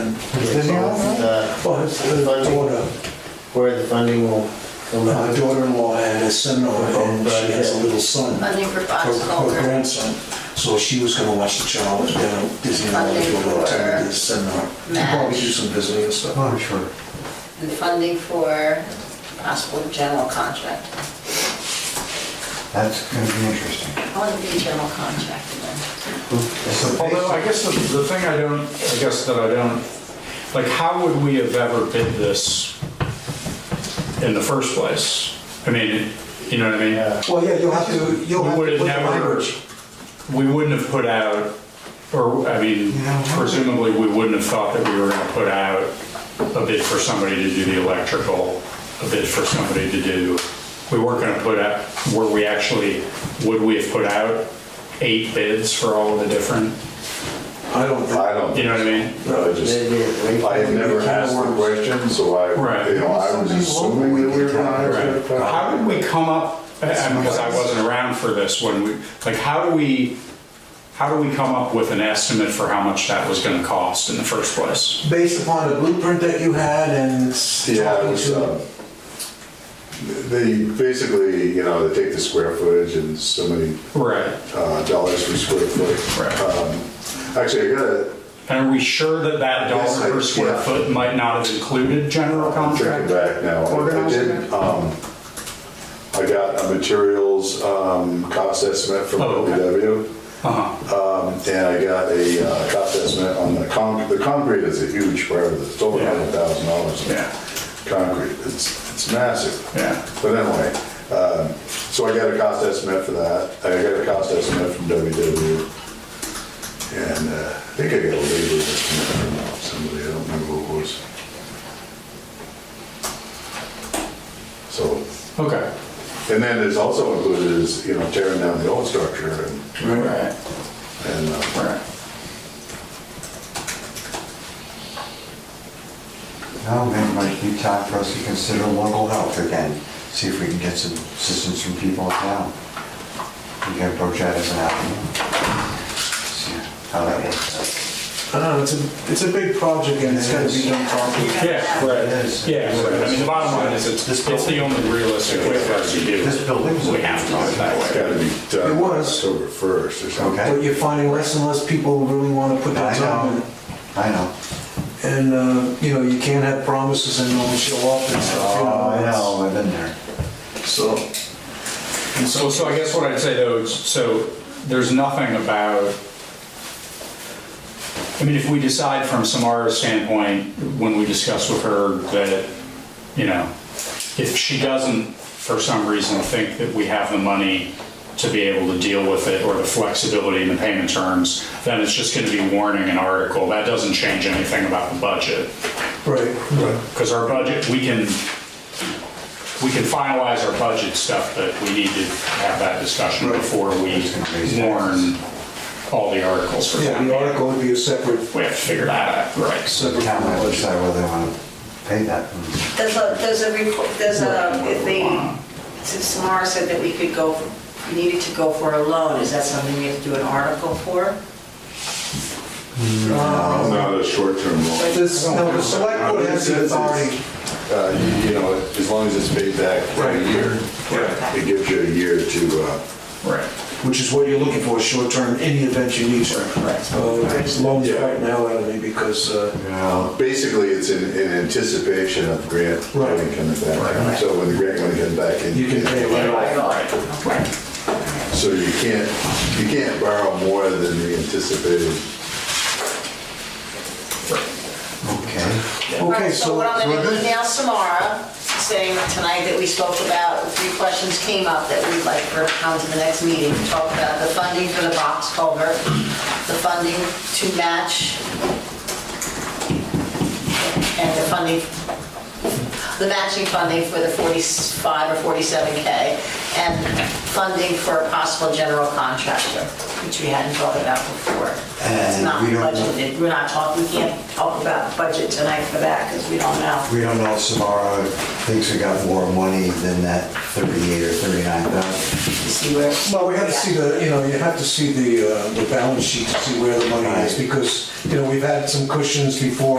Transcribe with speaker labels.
Speaker 1: Is it now?
Speaker 2: Uh,
Speaker 1: Well, his his daughter,
Speaker 2: Where the funding will come
Speaker 1: my
Speaker 2: out.
Speaker 1: daughter-in-law had a seminar and she has a little son, her
Speaker 3: Funding for
Speaker 1: her
Speaker 3: Fox Culture.
Speaker 1: grandson. So she was gonna watch the child down at Disneyland
Speaker 3: Funding
Speaker 1: for a time
Speaker 3: for
Speaker 1: this seminar. She'll
Speaker 3: match.
Speaker 1: probably do some visiting and stuff.
Speaker 4: Oh, I'm sure.
Speaker 3: And funding for possible general contract.
Speaker 4: That's going to be interesting.
Speaker 3: I want to be a general contractor then.
Speaker 5: Although, I guess the, the thing I don't, I guess that I don't, like, how would we have ever bid this in the first place? I mean, you know what I mean?
Speaker 1: Well, yeah, you'll have to, you'll
Speaker 5: We
Speaker 1: have to
Speaker 5: would
Speaker 1: put
Speaker 5: have
Speaker 1: the
Speaker 5: never,
Speaker 1: language.
Speaker 5: we wouldn't have put out, or, I mean,
Speaker 4: Yeah.
Speaker 5: presumably, we wouldn't have thought that we were gonna put out a bid for somebody to do the electrical, a bid for somebody to do, we weren't gonna put out, were we actually, would we have put out eight bids for all of the different,
Speaker 1: I don't think,
Speaker 6: I don't,
Speaker 5: you know what I mean?
Speaker 6: know, I just, I have never asked the question, so I,
Speaker 5: Right.
Speaker 6: you know, I was assuming that we were gonna ask
Speaker 5: Right.
Speaker 6: that
Speaker 5: How did we come up, uh, and because I wasn't around for this when we, like, how do we, how do we come up with an estimate for how much that was gonna cost in the first place?
Speaker 1: based upon the blueprint that you had and uh,
Speaker 6: question. Yeah, it
Speaker 1: talking
Speaker 6: was, um,
Speaker 1: to,
Speaker 6: they basically, you know, they take the square footage and so many
Speaker 5: Right.
Speaker 6: uh, dollars per square foot.
Speaker 5: Right.
Speaker 6: Um, Actually, I got it,
Speaker 5: Uh, And are we sure that that
Speaker 6: Yes,
Speaker 5: dollar
Speaker 6: I-
Speaker 5: per square
Speaker 6: yeah.
Speaker 5: foot might not have included general
Speaker 6: I'm thinking
Speaker 5: contract?
Speaker 6: back now. I did, um, I got a materials um, cost estimate from
Speaker 5: Oh, okay.
Speaker 6: OPW.
Speaker 5: Uh-huh,
Speaker 6: And I got a uh, cost estimate on the concrete, the concrete is a huge part of this, it's over a hundred thousand dollars.
Speaker 5: Yeah.
Speaker 6: Concrete, it's, it's massive.
Speaker 5: Yeah.
Speaker 6: But anyway, um, so I got a cost estimate for that, I got a cost estimate from WW. And uh, I think I got a labor estimate from somebody, I don't remember who it was. So,
Speaker 5: okay.
Speaker 6: and then it's also included is, you know, tearing down the old structure and,
Speaker 5: Right,
Speaker 6: and uh,
Speaker 5: right.
Speaker 4: Now, then, might be time for us to consider local health again, see if we can get some assistance from people in town. We can approach that as an avenue. See How that works.
Speaker 1: I don't know, it's a, it's a big project and it's gotta be done properly.
Speaker 5: Yeah, right,
Speaker 4: It is.
Speaker 5: yeah, right. I mean, the bottom line is, it's,
Speaker 4: This
Speaker 5: it's the only realistic way for us to do it.
Speaker 4: This building's-
Speaker 5: We have to do it that
Speaker 6: It's
Speaker 5: way.
Speaker 6: gotta be done.
Speaker 1: It was.
Speaker 6: October first or something.
Speaker 4: Okay.
Speaker 1: But you're finding less and less people really wanna put their
Speaker 4: I
Speaker 1: time in.
Speaker 4: know, I know.
Speaker 1: And, uh, you know, you can't have promises and no one show up and stuff, you
Speaker 4: Oh, I
Speaker 1: know.
Speaker 4: know, I've been there.
Speaker 1: it's- So, and so,
Speaker 5: So, so I guess what I'd say though, is, so there's nothing about, I mean, if we decide from Samara's standpoint, when we discuss with her that, you know, if she doesn't for some reason think that we have the money to be able to deal with it or the flexibility in the payment terms, then it's just gonna be warning an article. That doesn't change anything about the budget.
Speaker 1: right, right.
Speaker 5: Because our budget, we can, we can finalize our budget stuff, but we need to have that discussion before we warn all the articles for
Speaker 1: Yeah,
Speaker 5: town
Speaker 1: the
Speaker 5: meeting.
Speaker 1: article would be a separate,
Speaker 5: We have to figure that out, right? So
Speaker 4: The
Speaker 1: separate
Speaker 4: town might
Speaker 1: project.
Speaker 4: decide whether they want to pay that.
Speaker 3: There's a, there's a, report- there's a, if they, since Samara said that we could go, we needed to go for a loan, is that something we have to do an article for?
Speaker 6: It's
Speaker 1: uh,
Speaker 6: Not a short-term loan.
Speaker 1: Um, This, no, the select board has the authority.
Speaker 6: Uh, you- You know, as long as it's paid back for a
Speaker 1: Right.
Speaker 6: year,
Speaker 5: Right.
Speaker 6: it gives you a year to, uh,
Speaker 5: Right.
Speaker 1: Which is what you're looking for, short-term, in the event you need to. Uh,
Speaker 3: Oh,
Speaker 1: It's loans
Speaker 6: Yeah.
Speaker 1: right now, I mean, because, uh,
Speaker 4: Yeah.
Speaker 6: basically, it's in in anticipation of grant
Speaker 1: Right.
Speaker 6: money coming back. So when the grant money comes back in.
Speaker 1: You can pay it right
Speaker 5: Right, right.
Speaker 6: So you can't, you can't borrow more than the anticipated.
Speaker 4: Okay.
Speaker 1: okay,
Speaker 3: So
Speaker 1: so,
Speaker 3: what I'm gonna email Samara, saying tonight that we spoke about, three questions came up that we'd like for her to come to the next meeting, to talk about the funding for the box culvert, the funding to match, and the funding, the matching funding for the 45 or 47K, and funding for a possible general contractor, which we hadn't thought about before. It's
Speaker 4: And
Speaker 3: not
Speaker 4: we don't know-
Speaker 3: budgeted, we're not talking, we can't talk about budget tonight for that, because we don't know.
Speaker 4: We don't know if Samara thinks we got more money than that 38 or 39,000.
Speaker 3: to see where.
Speaker 1: well, we have to see the, you know, you have to see the, uh, the balance sheet to see where the money is,
Speaker 4: Right.
Speaker 1: because, you know, we've had some cushions before